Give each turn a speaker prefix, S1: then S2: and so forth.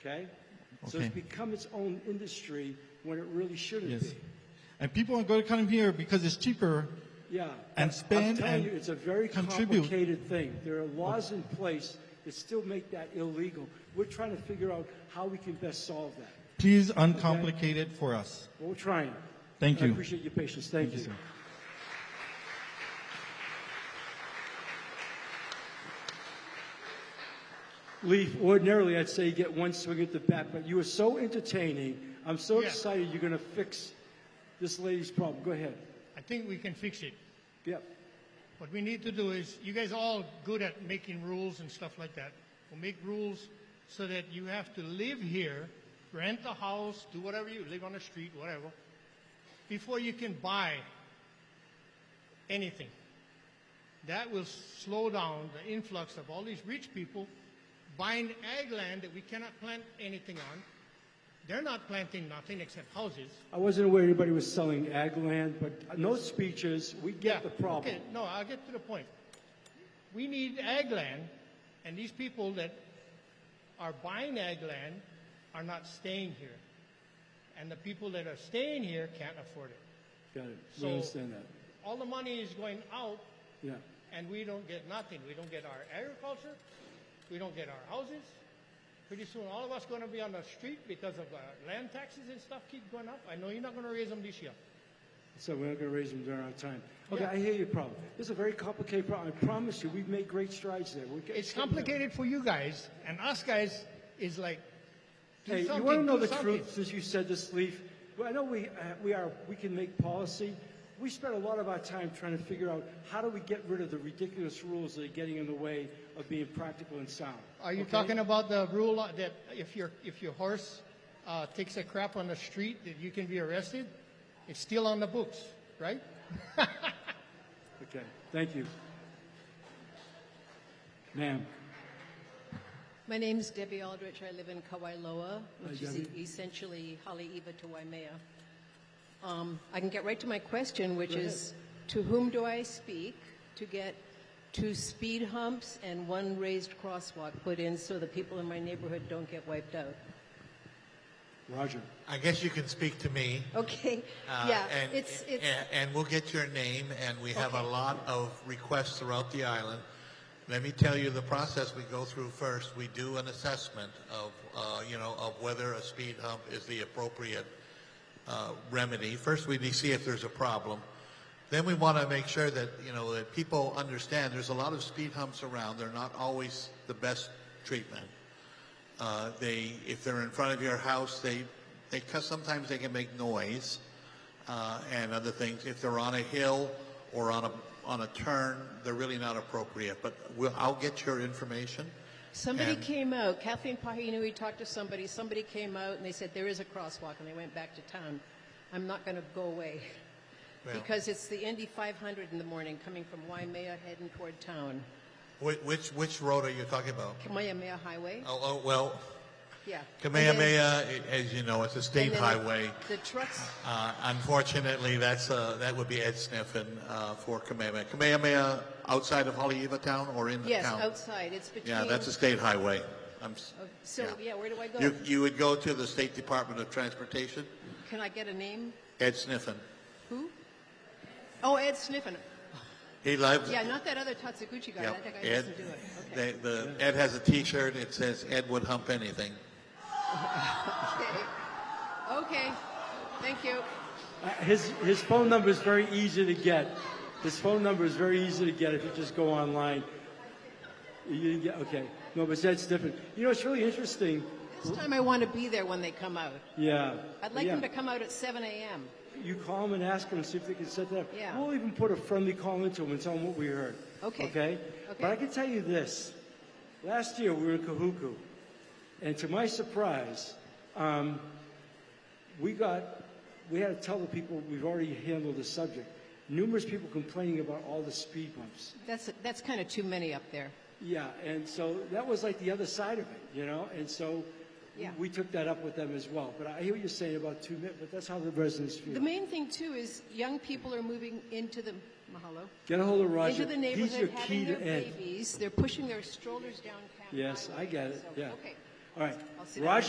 S1: Okay? So it's
S2: Okay.
S1: become its own industry when it really shouldn't
S2: Yes.
S1: be.
S2: And people are going to come here because it's cheaper.
S1: Yeah. I'm
S2: And spend
S1: telling
S2: and
S1: you, it's a very
S2: contribute.
S1: complicated thing. There are laws in place that still make that illegal. We're trying to figure out how we can best solve that.
S2: Please uncomplicate it for us.
S1: Well, we're trying.
S2: Thank
S1: I
S2: you.
S1: appreciate your patience. Thank,
S2: Thank you, sir.
S1: Leaf, ordinarily I'd say you get one swing at the bat, but you are so entertaining. I'm so
S3: Yeah.
S1: excited you're going to fix this lady's problem. Go ahead.
S3: I think we can fix it.
S1: Yep.
S3: What we need to do is, you guys are all good at making rules and stuff like that. We'll make rules so that you have to live here, rent a house, do whatever you live on the street, whatever, before you can buy anything. That will slow down the influx of all these rich people buying ag land that we cannot plant anything on. They're not planting nothing except houses.
S1: I wasn't aware anybody was selling ag land, but no speeches. We get the problem.
S3: Okay, no, I'll get to the point. We need ag land, and these people that are buying ag land are not staying here. And the people that are staying here can't afford it.
S1: Got it. We
S3: So-
S1: understand that.
S3: All the money is going out,
S1: Yeah.
S3: and we don't get nothing. We don't get our agriculture, we don't get our houses. Pretty soon, all of us going to be on the street because of uh, land taxes and stuff keep going up. I know you're not going to raise them this year.
S1: So we're not going to raise them during our time. Okay,
S3: Yeah.
S1: I hear your problem. This is a very complicated problem. I promise you, we've made great strides there. We're getting
S3: It's
S1: somewhere.
S3: complicated for you guys, and us guys is like. do
S1: Hey, you
S3: something,
S1: want to know
S3: do
S1: the
S3: something.
S1: truth? Since you said this, Leaf, well, I know we uh, we are we can make policy. We spend a lot of our time trying to figure out how do we get rid of the ridiculous rules that are getting in the way of being practical and sound.
S3: Are you
S1: okay?
S3: talking about the rule that if your if your horse uh, takes a crap on the street, that you can be arrested? It's still on the books, right?
S1: Okay, thank you, ma'am.
S4: My name's Debbie Aldrich. I live in Kawailoa, which is
S1: Debbie.
S4: essentially Haleiwa to Waimea. Um, I can get right to my question, which is to whom do I speak to get two speed humps and one raised crosswalk put in so the people in my neighborhood don't get wiped out?
S1: Roger.
S5: I guess you can speak to me.
S4: Okay,
S5: uh,
S4: yeah,
S5: and,
S4: it's, it's,
S5: and, and we'll get your name, and we have a lot of requests throughout the island. Let me tell you the process we go through first. We do an assessment of, uh, you know, of whether a speed hump is the appropriate uh, remedy. First, we see if there's a problem. Then we want to make sure that you know that people understand. There's a lot of speed humps around. They're not always the best treatment. Uh, they, if they're in front of your house, they, they cause sometimes they can make noise uh, and other things. If they're on a hill or on a on a turn, they're really not appropriate. But we'll, I'll get your information.
S4: somebody
S5: and-
S4: came out, Kathleen Pahinui talked to somebody, somebody came out and they said, there is a crosswalk, and they went back to town. I'm not gonna go away.
S5: Well,
S4: Because it's the Indy 500 in the morning, coming from Waimea heading toward town.
S5: which, which which road are you talking about?
S4: Kamehameha Highway?
S5: Oh, oh well,
S4: Yeah. And then-
S5: Kamehameha, i- as you know, it's a state
S4: and then
S5: highway.
S4: The trucks,
S5: Uh, unfortunately, that's uh, that would be Ed Sniffen uh, for Kamehameha. Kamehameha outside of Haleiwa town or in the
S4: yes,
S5: town?
S4: outside, it's between.
S5: Yeah, that's a state highway. I'm, s-
S4: Oh, So, yeah, where do I
S5: you,
S4: go?
S5: you would go to the State Department of Transportation,
S4: Can I get a name?
S5: Ed Sniffen.
S4: Who? Oh, Ed Sniffen.
S5: He loves
S4: Yeah, not that other Tatsuguchi guy, that
S5: Yep,
S4: guy
S5: Ed,
S4: doesn't do it. Okay.
S5: they, the, Ed has a T-shirt, it says Ed would hump anything.
S4: Okay. Okay, thank you.
S1: Uh, his his phone number is very easy to get. His phone number is very easy to get if you just go online. You didn't get okay. No, but that's different. You know, it's really interesting.
S4: This time I want to be there when they come out.
S1: Yeah.
S4: I'd like
S1: yeah.
S4: them to come out at 7 AM.
S1: You call them and ask them and see if they can set that up.
S4: Yeah.
S1: We'll even put a friendly call into them and tell them what we heard.
S4: Okay.
S1: Okay? But
S4: Okay.
S1: I can tell you this. Last year, we were in Kahuku, and to my surprise, um, we got, we had to tell the people we've already handled the subject. Numerous people complaining about all the speed bumps.
S4: That's, that's kind of too many up there.
S1: Yeah, and so that was like the other side of it, you know? And so
S4: Yeah.
S1: we took that up with them as well. But I hear what you're saying about two minutes, but that's how the residents feel.
S4: The main thing too is young people are moving into the mahalo
S1: Get a hold of Roger.
S4: into the
S1: He's your
S4: neighborhood,
S1: key
S4: having their
S1: to Ed.
S4: babies. They're pushing their strollers down. Pat
S1: Yes, I
S4: Highway,
S1: get it,
S4: so-
S1: yeah.
S4: Okay.
S1: All right.
S4: I'll sit down.
S1: Roger